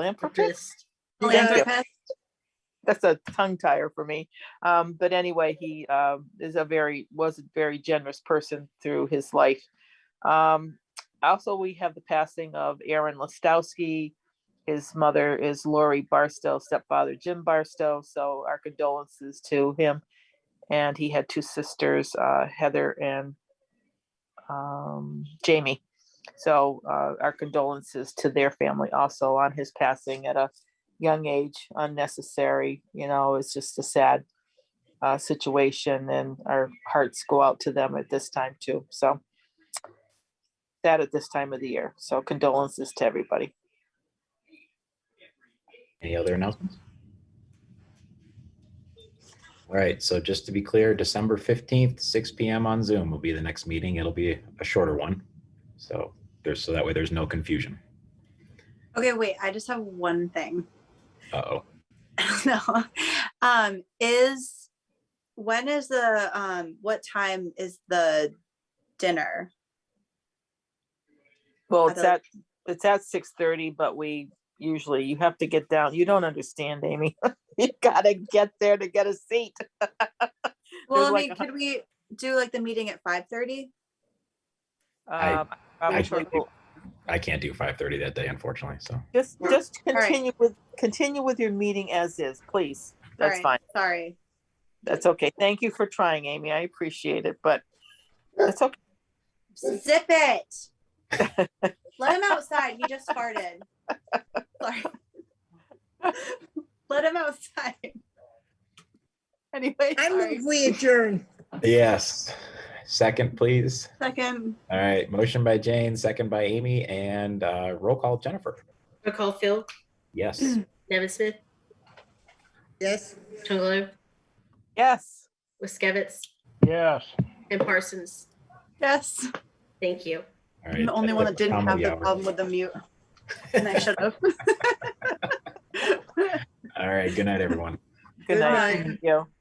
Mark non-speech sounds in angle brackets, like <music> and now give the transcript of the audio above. Philanthropist? Philanthropist. Oh, Philanthropist. That's a tongue tire for me. Um, but anyway, he um, is a very, was a very generous person through his life. Um, also, we have the passing of Aaron Listowski. His mother is Lori Barstow, stepfather Jim Barstow. So our condolences to him. And he had two sisters, uh, Heather and um, Jamie. So uh, our condolences to their family also on his passing at a young age, unnecessary. You know, it's just a sad uh, situation, and our hearts go out to them at this time too. So that at this time of the year. So condolences to everybody. Any other announcements? All right, so just to be clear, December 15th, six PM on Zoom will be the next meeting. It'll be a shorter one. So there's, so that way there's no confusion. Okay, wait, I just have one thing. <laughs> Uh-oh. No. Um, is, when is the, um, what time is the dinner? Well, I it's thought- at it's at six thirty, but we usually you have to get down. You don't understand, Amy. <laughs> you gotta get there to get a seat. Well, I like mean, a could we do like the meeting at five thirty? I- Um, probably can't will- I can't do 5:30 that day, unfortunately, so. Just just All right. continue with continue with your meeting as is, please. That's fine. Sorry. That's okay. Thank you for trying, Amy. I appreciate it, but that's okay. <laughs> Zip <laughs> it. Let him outside. He just farted. Sorry. Let him outside. Anyway, I Sorry. move we adjourn. Yes. Second, please. Second. All right, motion by Jane, second by Amy, and uh, roll call Jennifer. Recall Phil, Yes. Mm. Nevin Smith, Yes. Chungalo, yes. Wiskevitz, Yes. and Parsons. Yes. Thank you. All I'm right, the only one that didn't Tom have will the yell. problem with the mute. And I should <laughs> have. All right, good night, everyone. Good Good night. night. Thank you.